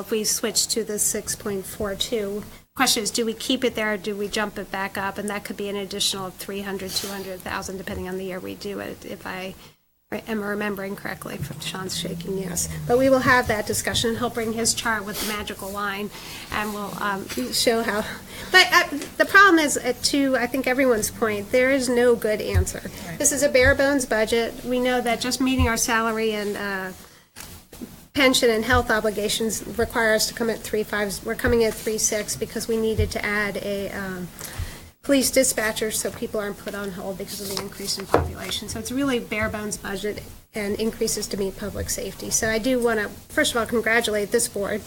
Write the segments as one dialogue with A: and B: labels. A: If we switch to the 6.42, question is, do we keep it there, or do we jump it back up? And that could be an additional 300, 200,000, depending on the year we do it, if I am remembering correctly, Sean's shaking yes. But we will have that discussion, he'll bring his chart with the magical line, and we'll um, show how, but uh, the problem is, uh, to, I think everyone's point, there is no good answer. This is a bare bones budget, we know that just meeting our salary and uh, pension and health obligations require us to come at three fives. We're coming at three six because we needed to add a um, police dispatcher so people aren't put on hold because of the increase in population. So it's really bare bones budget and increases to meet public safety. So I do want to, first of all, congratulate this board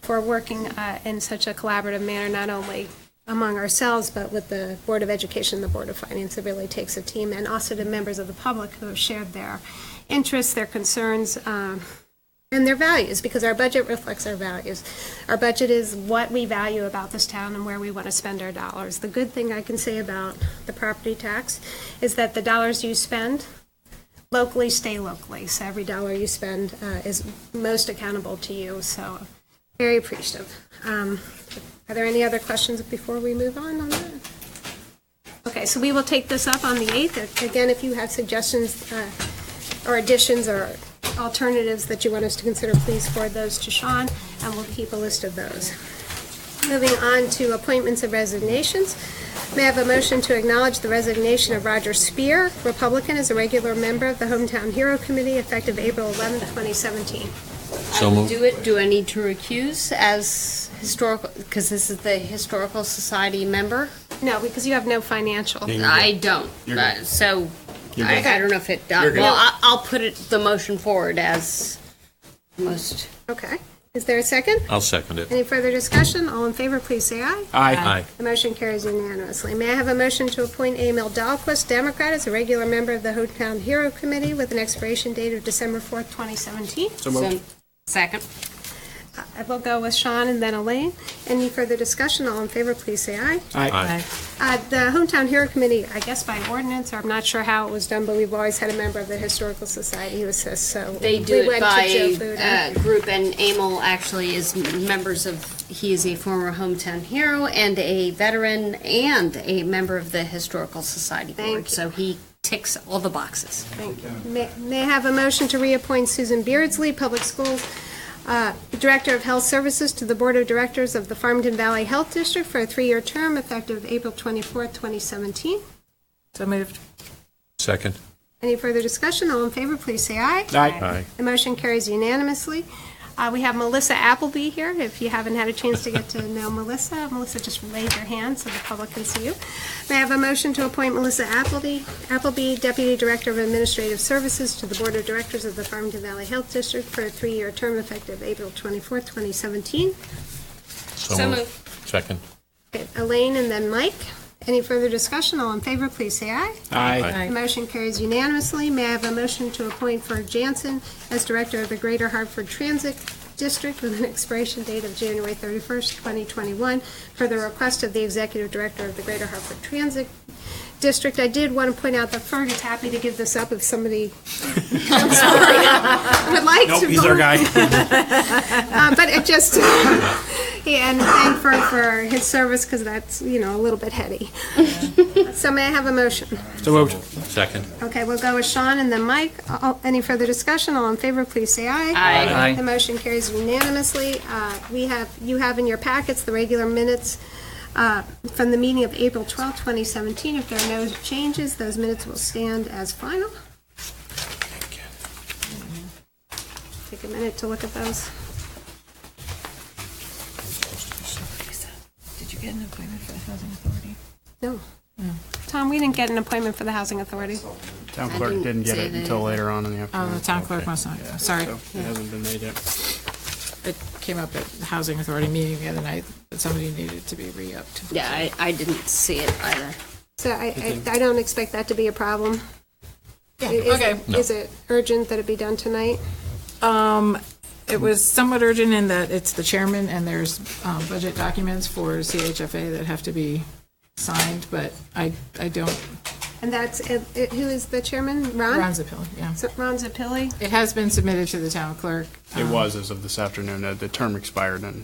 A: for working uh, in such a collaborative manner, not only among ourselves, but with the Board of Education, and the Board of Finance. It really takes a team, and also to members of the public who have shared their interests, their concerns, um, and their values, because our budget reflects our values. Our budget is what we value about this town and where we want to spend our dollars. The good thing I can say about the property tax is that the dollars you spend locally stay locally. So every dollar you spend uh, is most accountable to you, so very appreciative. Um, Are there any other questions before we move on on that? Okay, so we will take this up on the 8th. Again, if you have suggestions uh, or additions or alternatives that you want us to consider, please forward those to Sean, and we'll keep a list of those. Moving on to appointments and resignations. May I have a motion to acknowledge the resignation of Roger Spear, Republican, as a regular member of the Hometown Hero Committee effective April 11th, 2017?
B: I
C: So
B: will
C: moved.
B: do it. Do I need to recuse as historical, because this is the Historical Society member?
A: No, because you have no financial.
B: I don't. Uh, So I
A: good.
B: I don't know if it, uh, well, I- I'll put it, the motion forward as most.
A: Okay. Is there a second?
C: I'll second it.
A: Any further discussion? All in favor, please say aye.
C: Aye.
A: The motion carries unanimously. May I have a motion to appoint Emil Dahlquist, Democrat, as a regular member of the Hometown Hero Committee with an expiration date of December 4th, 2017?
B: So- Second.
A: I will go with Sean and then Elaine. Any further discussion? All in favor, please say aye.
C: Aye.
A: Uh, The Hometown Hero Committee, I guess by ordinance, or I'm not sure how it was done, but we've always had a member of the Historical Society who assists, so.
B: They do
A: we
B: it
A: went to Joe
B: by
A: Fuda.
B: uh, group, and Emil actually is m- members of, he is a former hometown hero and a veteran and a member of the Historical Society
A: Thank
B: Board. So he ticks all the boxes.
A: Thank you. May may I have a motion to reappoint Susan Beardsley, Public Schools uh, Director of Health Services, to the Board of Directors of the Farmington Valley Health District for a three-year term effective April 24th, 2017?
D: So moved.
C: Second.
A: Any further discussion? All in favor, please say aye.
C: Aye.
A: The motion carries unanimously. Uh, We have Melissa Appleby here. If you haven't had a chance to get to know Melissa, Melissa, just raise your hand so the public can see you. May I have a motion to appoint Melissa Appleby, Appleby Deputy Director of Administrative Services to the Board of Directors of the Farmington Valley Health District for a three-year term effective April 24th, 2017?
C: So moved. Second.
A: Okay, Elaine and then Mike. Any further discussion? All in favor, please say aye.
E: Aye.
A: The motion carries unanimously. May I have a motion to appoint Ferg Jansen as Director of the Greater Hartford Transit District with an expiration date of January 31st, 2021, for the request of the Executive Director of the Greater Hartford Transit District. I did want to point out that Ferg is happy to give this up if somebody I'm sorry, would like to.
E: Nope, he's our
A: volunteer.
E: guy.
A: Um, but it just, yeah, and thank Ferg for his service because that's, you know, a little bit heady. So may I have a motion?
E: So moved.
C: Second.
A: Okay, we'll go with Sean and then Mike. All- Any further discussion? All in favor, please say aye.
E: Aye.
A: The motion carries unanimously. Uh, We have, you have in your packets the regular minutes uh, from the meeting of April twelfth, 2017. If there are no changes, those minutes will stand as final. Take a minute to look at those.
D: Did you get an appointment for the housing authority?
A: No. Tom, we didn't get an appointment for the Housing Authority.
E: Town
B: I
E: clerk
B: didn't
E: didn't get
B: say
E: it
B: that
E: until
B: either.
E: later on in the afternoon.
D: Oh, the town clerk must not, sorry.
E: So it hasn't been made yet.
D: It came up at the housing authority meeting the other night, that somebody needed to be re-upped.
B: Yeah, I, I didn't see it either.
A: So I, I- I don't expect that to be a problem. Is-
D: okay.
A: Is it urgent that it be done tonight?
D: Um, it was somewhat urgent in that it's the chairman and there's, um, budget documents for CHFA that have to be signed, but I, I don't,
A: And that's, it- it- who is the chairman? Ron?
D: Ron Zepilla, yeah.
A: So- Ron Zappilli?
D: It has been submitted to the town clerk.
E: It was as of this afternoon. Uh, The term expired on